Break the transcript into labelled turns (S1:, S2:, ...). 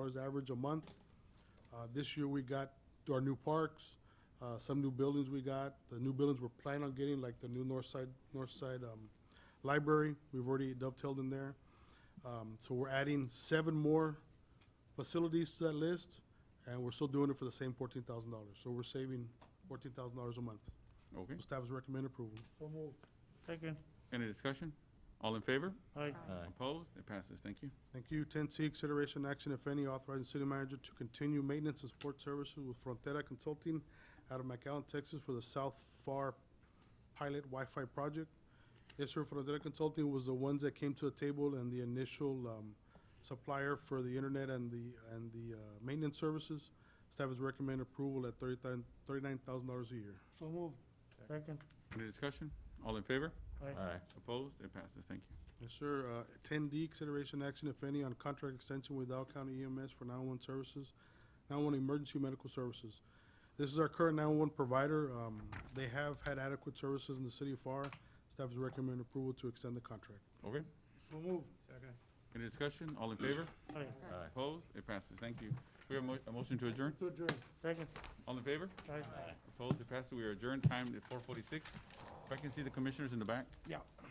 S1: cars average a month. Uh, This year, we got our new parks, uh, some new buildings we got. The new buildings we're planning on getting, like the new north side, north side um, library, we've already dovetailed in there. Um, So we're adding seven more facilities to that list, and we're still doing it for the same fourteen thousand dollars. So we're saving fourteen thousand dollars a month.
S2: Okay,
S1: Staff is recommend approval.
S3: So moved.
S4: Second.
S2: any discussion? All in favor?
S4: Aye.
S2: Opposed? It passes, thank you.
S1: Thank you. Ten C, consideration action, if any, authorizing city manager to continue maintenance and support services with Frontera Consulting out of McAllen, Texas for the South FAR pilot Wi-Fi project. Yes, sir, Frontera Consulting was the ones that came to the table and the initial, um, supplier for the internet and the, and the, uh, maintenance services. Staff has recommended approval at thirty thousand dollars a year.
S3: So moved.
S4: Second.
S2: Any discussion? All in favor?
S4: Aye.
S2: Opposed? It passes, thank you.
S1: Yes, sir. Uh, Ten D, consideration action, if any, on contract extension with Dow County EMS for nine-one services, nine-one emergency medical services. This is our current nine-one provider. Um, They have had adequate services in the city of FAR. Staff is recommending approval to extend the contract.
S2: Okay,
S3: So moved. Second.
S2: any discussion? All in favor?
S4: Aye.
S2: Opposed? It passes, thank you. We have a mo- a motion to adjourn?
S3: To adjourn.
S4: Second.
S2: All in favor?
S4: Aye.
S2: Opposed? It passes, we are adjourned, time at four forty-six. If I can see the commissioners in the back?
S3: Yeah.